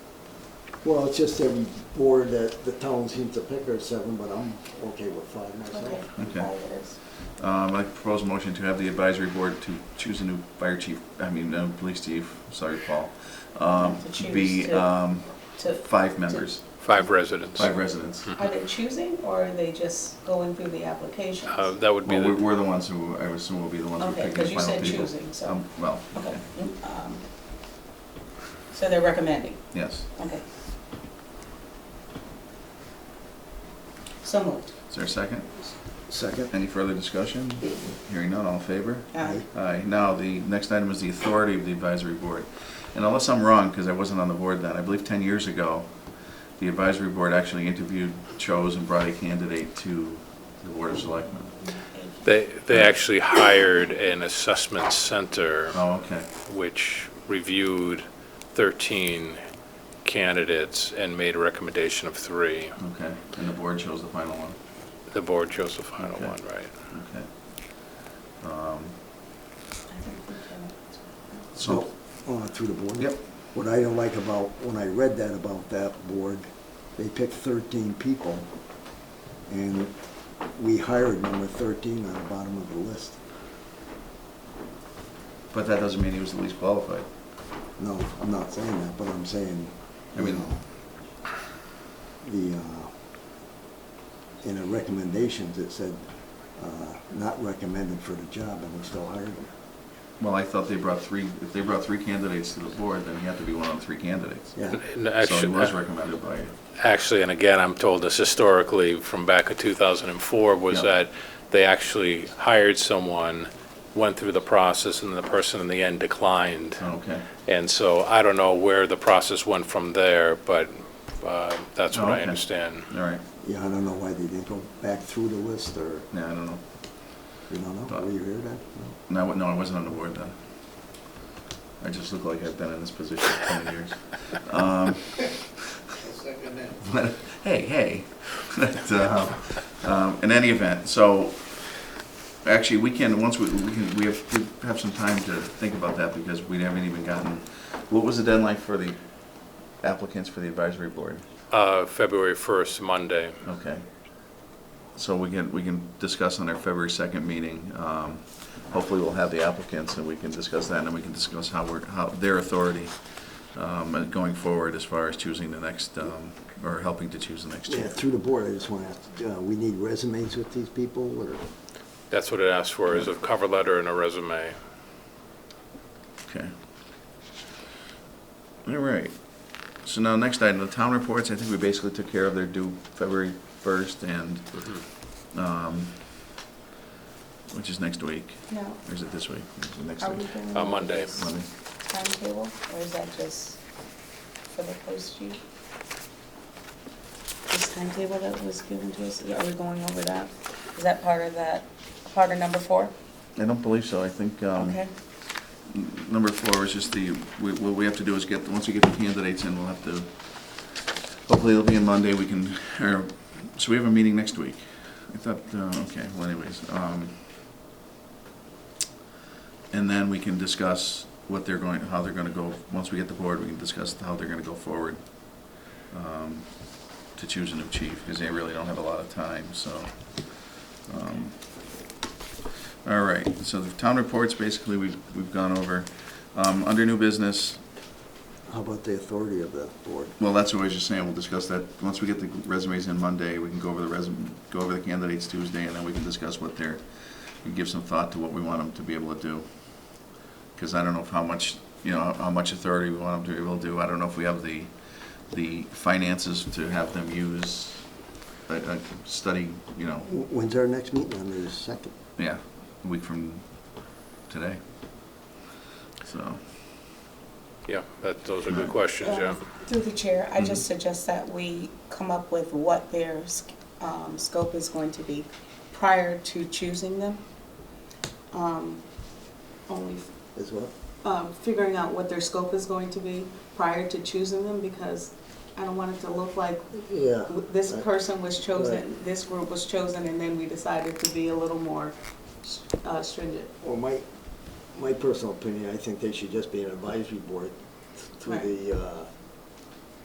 Well, it's just every board that the town seems to pick are seven, but I'm okay with five myself. Okay. Five it is. Um, I propose a motion to have the advisory board to choose a new fire chief, I mean, uh, police chief, sorry, Paul. Um, To choose be, to- um, To, five members, Five residents. Mm-hmm. five residents. are they choosing or are they just going through the applications? Uh, That would be, Well, we're, the- we're the ones who, I assume will be the ones who Okay, pick the final people. 'cause you said choosing, so- Um, Well, Okay. Um, So they're recommending, yes. okay. So moved. Is there a second? Second? Any further discussion? Hearing none, all in favor? Aye. Aye. Now, the next item is the authority of the advisory board. And unless I'm wrong, because I wasn't on the board then, I believe 10 years ago, the advisory board actually interviewed, chose, and brought a candidate to the Board of Selectmen. they, they actually hired an assessment center Oh, okay. which reviewed 13 candidates and made a recommendation of three. Okay. And the board chose the final one. The board chose the final Okay. one, right? Okay. Um, So, So, uh, through the board? Yep. What I don't like about, when I read that about that board, they picked thirteen people, and we hired number thirteen on the bottom of the list. but that doesn't mean he was the least qualified. No, I'm not saying that, but I'm saying, I you mean- know, the, uh, in the recommendations, it said, uh, not recommended for the job, and we still hired him. Well, I thought they brought three, if they brought three candidates to the board, then he had to be one of the three candidates. Yeah, And So he actually- uh, was recommended by, Actually, and again, I'm told this historically from back in 2004, was Yeah. that they actually hired someone, went through the process, and the person in the end declined. okay. And so I don't know where the process went from there, but uh, that's what Oh, I okay. understand. All right. yeah, I don't know why they didn't go back through the list, or, Yeah, I don't know. you don't know, were you here then? No. No, I wa- no, I wasn't on the board then. I just look like I've been in this position for 10 years. Um, but, Hey, hey. But, uh, um, In any event, so, actually, we can, once we, we can, we have, we have some time to think about that because we haven't even gotten, what was the deadline for the applicants for the advisory board? Uh, February 1st, Monday. Okay. So we can, we can discuss on our February 2nd meeting. um, Hopefully, we'll have the applicants, and we can discuss that, and then we can discuss how we're, how, their authority um, and going forward as far as choosing the next, um, or helping to choose the next Yeah, chair. through the board, I just wanna ask, uh, we need resumes with these people, or, That's what it asked for, is a cover letter and a resume. Okay. All right. So now, next item, the town reports. I think we basically took care of their due February 1st and, Mm-hmm. um, which is next week. Now, Or is it this week? Is it Next are we week. doing? Uh, Monday. this Monday. Timetable, or is that just for the post chief? This timetable that was given to us, are we going over that? Is that part of that, part of number four? I don't believe so. I think um, Okay, number four is just the, we- what we have to do is get, once we get the candidates in, we'll have to, hopefully it'll be on Monday, we can, or, so we have a meeting next week. I thought, uh, okay, well anyways. um, And then we can discuss what they're going, how they're gonna go, once we get the board, we can discuss how they're gonna go forward um, to choose a new chief, because they really don't have a lot of time, so. um, all right, so the town reports, basically, we've, we've gone over. Um, under new business, how about the authority of the board? well, that's what I was just saying, we'll discuss that. Once we get the resumes in Monday, we can go over the resume, go over the candidates Tuesday, and then we can discuss what they're, and give some thought to what we want them to be able to do. Because I don't know if how much, you know, how- how much authority we want them to be able to do. I don't know if we have the, the finances to have them use, a a study, you know, Wh- When's our next meeting, on the second? yeah, a week from today. So, Yeah, that, those are good questions, yeah. Uh, Through the chair, I Mm-hmm. just suggest that we come up with what their sc- um, scope is going to be prior to choosing them. Um, Only As well? um, figuring out what their scope is going to be prior to choosing them, because I don't want it to look like Yeah. w- this Right. person was chosen, Right. this group was chosen, and then we decided to be a little more uh, stringent. Well, my, my personal opinion, I think they should just be an advisory board through Right. the uh,